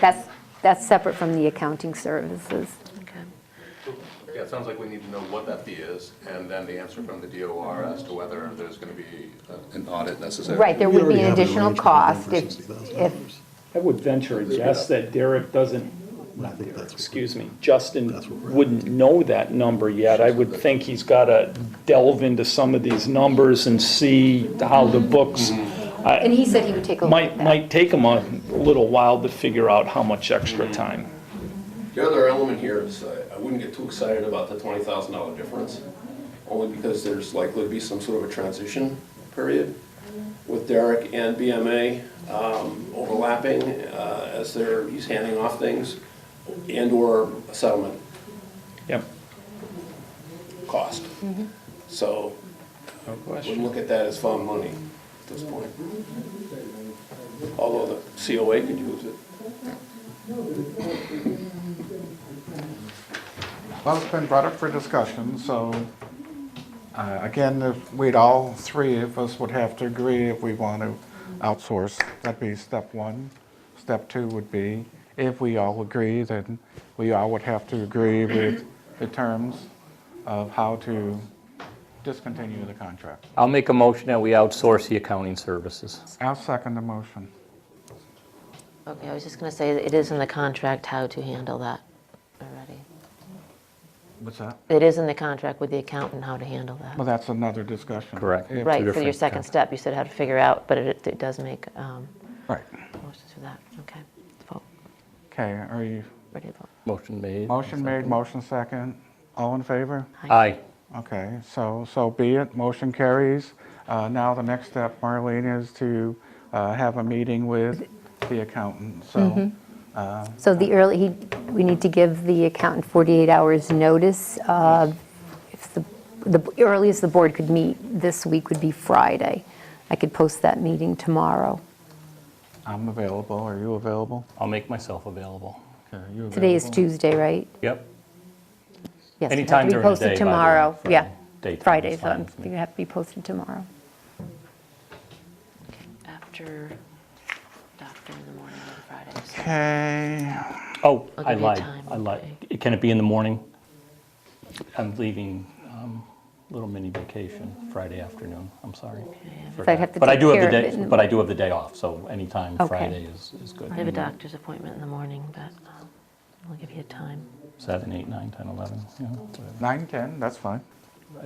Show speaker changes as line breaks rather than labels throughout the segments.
That's, that's separate from the accounting services.
Uh,
Yeah, it sounds like we need to know what that fee is, and then the answer from the DOR as to whether there's going to be uh, an audit necessary.
Right, there
We
would be
already
an
have an
additional
arrangement with
cost
them for
if,
$60,000.
if,
I would venture a guess that Derek doesn't,
I think that's what-
excuse me, Justin
That's what we're at.
wouldn't know that number yet. I would think he's got to delve into some of these numbers and see how the books,
and he said he would take a look
might,
at that.
might take him a little while to figure out how much extra time.
The other element here is, uh, I wouldn't get too excited about the twenty thousand dollar difference, only because there's likely to be some sort of a transition period with Derek and BMA um, overlapping uh, as they're, he's handing off things, and/or settlement
Yep.
cost. So, wouldn't look at that as fund money at this point. Although the COA could use it.
Well, it's been brought up for discussion, so uh, again, if we'd all three of us would have to agree if we want to outsource. That'd be step one. Step two would be, if we all agree, then we all would have to agree with the terms of how to discontinue the contract.
I'll make a motion that we outsource the accounting services.
I'll second the motion.
Okay, I was just going to say, it is in the contract how to handle that already.
What's that?
It is in the contract with the accountant how to handle
Well,
that.
that's another discussion.
Correct.
If-
Right, so your
different-
second step, you said how to figure out, but it it does make um,
Right.
motions for that. Okay, vote,
Okay, are you,
ready to vote.
Motion made.
motion made, motion second. All in favor?
Aye.
Okay, so, so be it, motion carries. Uh, Now, the next step, Marlene, is to uh, have a meeting with the accountant, so,
So the early, he, we need to give the accountant 48 hours notice. uh, If the, the earliest the board could meet this week would be Friday. I could post that meeting tomorrow.
I'm available, are you available?
I'll make myself available.
Okay, you available?
Today is Tuesday, right?
Yep.
Yes. it'd have
Anytime
to be
during the
posted
day. by the way,
Tomorrow,
for
yeah.
daytime
Friday,
is
so
fine
it
with me.
would have to be posted tomorrow.
After doctor in the morning on Fridays.
Okay,
Oh,
I'll
I
give you
lied,
time,
I lied. Can it be in the morning? I'm leaving um, Little Mini vacation Friday afternoon, I'm sorry.
So I'd have to
But I
take
do have
care
the
of it.
day,
in the
but I do have the day off, so anytime
Okay.
Friday is, is good.
I have a doctor's appointment in the morning, but um, I'll give you a time.
Seven, eight, nine, 10, 11, yeah, whatever.
9, 10, that's fine.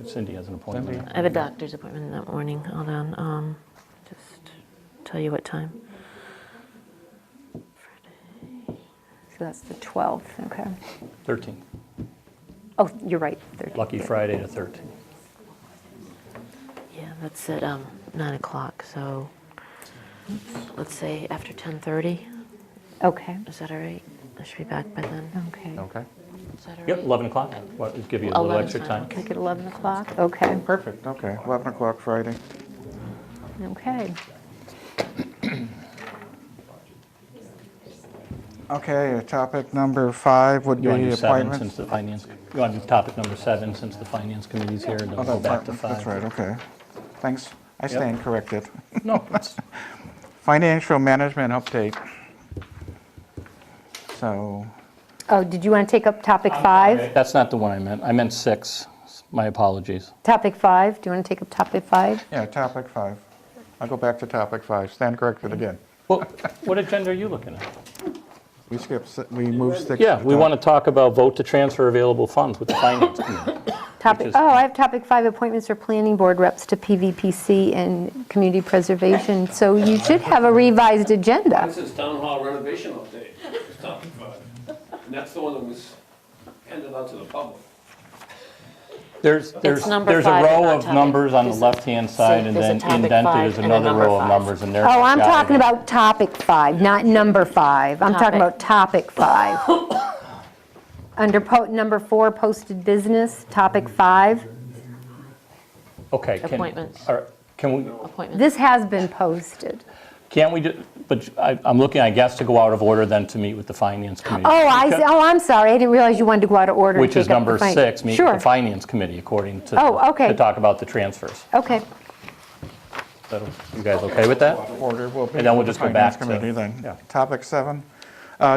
Cindy has an appointment.
I have a doctor's appointment that morning, hold on, um, just tell you what time.
So that's the 12th, okay.
13,
Oh, you're right. 13th,
lucky
yeah.
Friday the 13th.
Yeah, that's at um, nine o'clock, so let's say after ten thirty,
Okay,
is that all right? I should be back by then,
okay.
Okay,
is that all right?
Yep, 11 o'clock, What- give you a little
11
extra
is
time.
fine,
Make it 11 o'clock? Okay,
perfect, okay, 11 o'clock Friday.
okay.
Okay, topic number five would be
You want to do seven
appointments.
since the finance, you want to do topic number seven since the finance committee's here, and then
Oh,
we'll go
that's
back
right,
to five.
That's right, okay. Thanks, I stand corrected.
No, it's-
Financial management update. So,
Oh, did you want to take up topic five?
that's not the one I meant. I meant six. My apologies.
Topic five, do you want to take up topic five?
Yeah, topic five. I'll go back to topic five. Stand corrected again.
Well, what agenda are you looking at?
We skipped, si- we moved six.
Yeah, we want to talk about vote to transfer available funds with the finance committee.
Topic,
is-
oh, I have topic five, appointments for planning board reps to PVPC and community preservation. So you should have a revised agenda.
This is town hall renovation update, it's topic five. And that's the one that was handed out to the public.
There's, there's,
number
there's a
five and
row
not
of
topic.
numbers on the
There's-
left-hand side, and
there's a
then
topic
indented
five
is
and a
another
number
row of
five.
numbers, and there's.
Oh, I'm
got it.
talking about topic five, not number five. I'm talking
Topic.
about topic five. Under po- number four, posted business, topic five.
Okay. can-
Appointments.
all right, Can we,
appointment.
This has been posted.
can't we, do? but I- I'm looking, I guess, to go out of order then to meet with the finance committee.
Oh, I, see.
Because-
oh, I'm sorry, I didn't realize you wanted to go out of order. and
Which is
take up the
number
fin-
six, meet with the
Sure,
Finance Committee, according to.
Oh, okay.
To talk about the transfers.
okay.
So, You guys okay with that?
Order will be.
And then we'll
the
just go
Finance
back to-
Committee then.
yeah.
Topic seven,